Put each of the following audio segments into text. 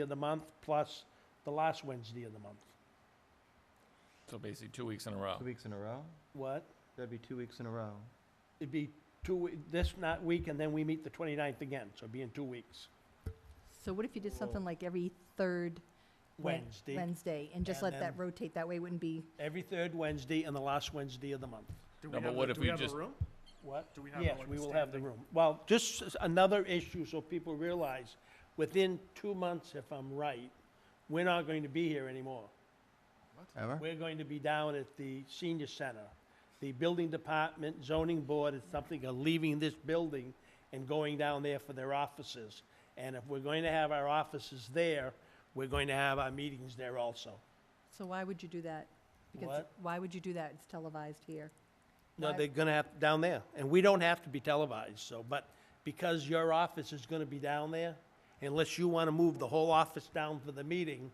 of the month plus the last Wednesday of the month. So basically, two weeks in a row. Two weeks in a row? What? That'd be two weeks in a row. It'd be two, we- this not week, and then we meet the 29th again, so it'd be in two weeks. So what if you did something Well- like every third Wed- Wednesday, Wednesday and just And let that then- rotate? That way it wouldn't be, every third Wednesday and the last Wednesday of the month. Do No, we but have, what a- if do we we have a just- room? What? Do we have Yes, like we a will have the standing- room. Well, just s- another issue so people realize, within two months, if I'm right, we're not going to be here anymore. Ever? We're going to be down at the senior center. The building department, zoning board, and something are leaving this building and going down there for their offices. And if we're going to have our offices there, we're going to have our meetings there also. so why would you do that? Because What? why would you do that? It's televised here. No, Why- they're gonna have, down there, and we don't have to be televised, so, but because your office is gonna be down there, unless you wanna move the whole office down for the meeting,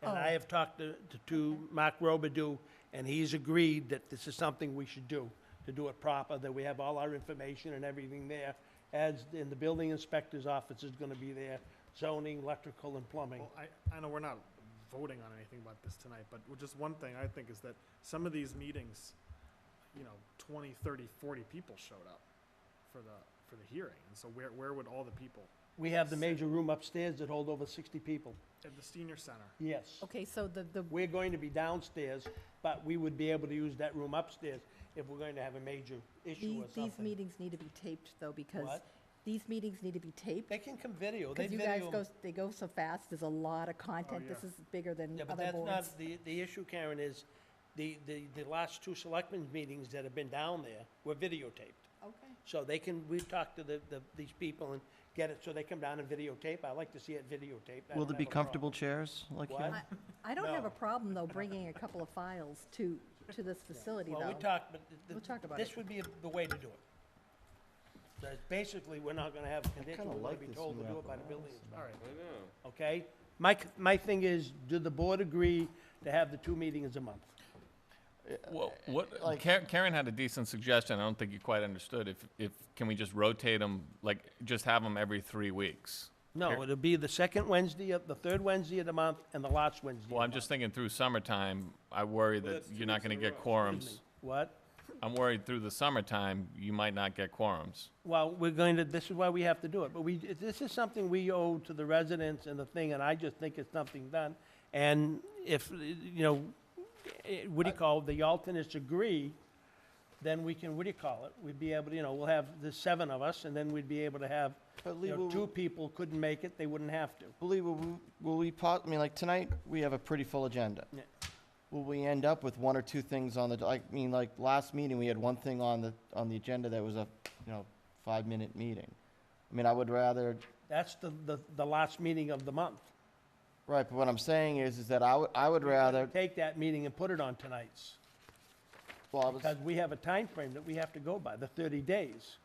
and I Oh. have talked to, to- to Mark Robidoux, and he's agreed that this is something we should do, to do it proper, that we have all our information and everything there, as, and the building inspector's office is gonna be there, zoning, electrical, and plumbing. Well, I, I know we're not voting on anything about this tonight, but w- just one thing I think is that some of these meetings, you know, 20, 30, 40 people showed up for the, for the hearing. And so where, where would all the people? We have the major room upstairs that hold over sixty people, At the senior center. yes. Okay, so the, the, We're going to be downstairs, but we would be able to use that room upstairs if we're going to have a major issue these, or these something. meetings need to be taped though, because What? these meetings need to be taped. They can come video, they Because you guys video. go, 'em. s- they go so fast. There's a lot of content. yeah. This is bigger than Yeah, but other that's boards. not, the, the issue, Karen, is the, the, the last two selectmen's meetings that have been down there were videotaped. Okay. So they can, we talk to the, the, these people and get it, so they come down and videotape. I like to see it videotaped. I Will don't there be have a problem. comfortable chairs like What? here? I don't have No. a problem though bringing a couple of files to, to this facility Well, we though. talked, but th- th- We'll talk about this it. would be the way to do it. So it's Basically, we're not gonna have a condition, kinda we're gonna like be this told to new do it by the building inspector. All right. okay? My, c- my thing is, do the board agree to have the two meetings a month? Well, what, Karen, Karen had a decent suggestion, I don't think you quite understood, if, if, can we just rotate them, like, just have them every three weeks? No, Here- it'll be the second Wednesday, of the third Wednesday of the month, and the last Wednesday of Well, I'm the just thinking through summertime, I worry that you're not gonna get quorums. month. What? I'm worried through the summertime, you might not get quorums. Well, we're going to, this is why we have to do it, but we, this is something we owe to the residents and the thing, and I just think it's something done. And if, you know, eh, what do you call, it, the alternates agree, then we can, what do you call it? We'd be able, to, you know, we'll have the seven of us, and then we'd be able to have, But Lee, you know, will, two people couldn't make it, they wouldn't have to. but Lee, will, we- will we pot, I mean, like, tonight, we have a pretty full agenda. Yeah. Will we end up with one or two things on the, I mean, like, last meeting, we had one thing on the, on the agenda that was a, you know, five-minute meeting. I mean, I would rather, That's the, the, the last meeting of the month. right, but what I'm saying is, is that I would, I would rather, Take that meeting and put it on tonight's, well, I was- because we have a time frame that we have to go by, the thirty days.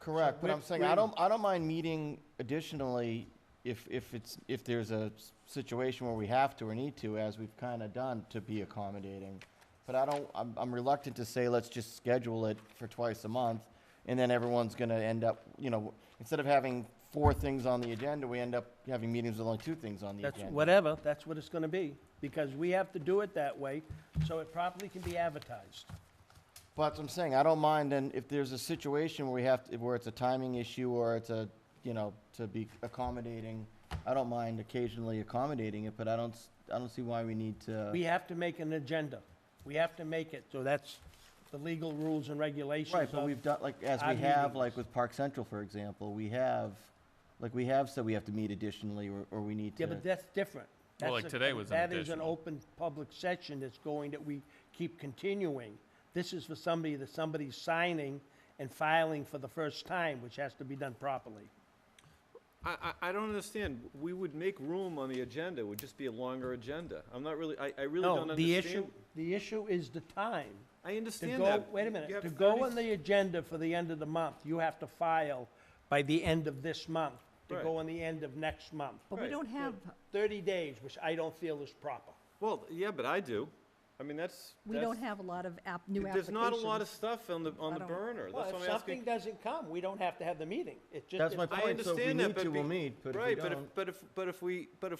Correct, but we're- I'm saying, I we're- don't, I don't mind meeting additionally if, if it's, if there's a s- situation where we have to or need to, as we've kind of done, to be accommodating. But I don't, I'm, I'm reluctant to say, let's just schedule it for twice a month, and then everyone's gonna end up, you know, instead of having four things on the agenda, we end up having meetings with only two things on the That's, agenda. whatever, that's what it's gonna be, because we have to do it that way, so it properly can be advertised. But that's what I'm saying, I don't mind, and if there's a situation where we have, to- where it's a timing issue, or it's a, you know, to be accommodating, I don't mind occasionally accommodating it, but I don't, s- I don't see why we need We to. have to make an agenda, we have to make it, so that's the legal rules and regulations Right, but of- we've done, like, as our we have, meetings. like with Park Central, for example, we have, like, we have said we have to meet additionally, or, or we need Yeah, but to. that's different. Well, That's like a- today was an That is an additional. open public session that's going, that we keep continuing. This is for somebody that somebody's signing and filing for the first time, which has to be done properly. I, I, I don't understand. We would make room on the agenda. It would just be a longer agenda. I'm not really, I, I really don't No, understand. the issue, the issue is the time. I To understand go, that. wait a You minute, have to go 30 on the agenda for the end of the month, you have to file by the end of this month, to go Right. on the end of next month. But we Right, don't have, Thirty days, which I don't feel is proper. Well, yeah, but I do. I mean, that's. we don't that's- have a lot of app, new applications. There's not a lot of stuff on the, I on the don't- burner. Well, That's if what I'm something asking. doesn't come, we don't have to have the meeting. It just. That's if my I point, so if we understand that, need but. to, we'll be- meet, but if we Right, but don't. if, but if, but if we, but if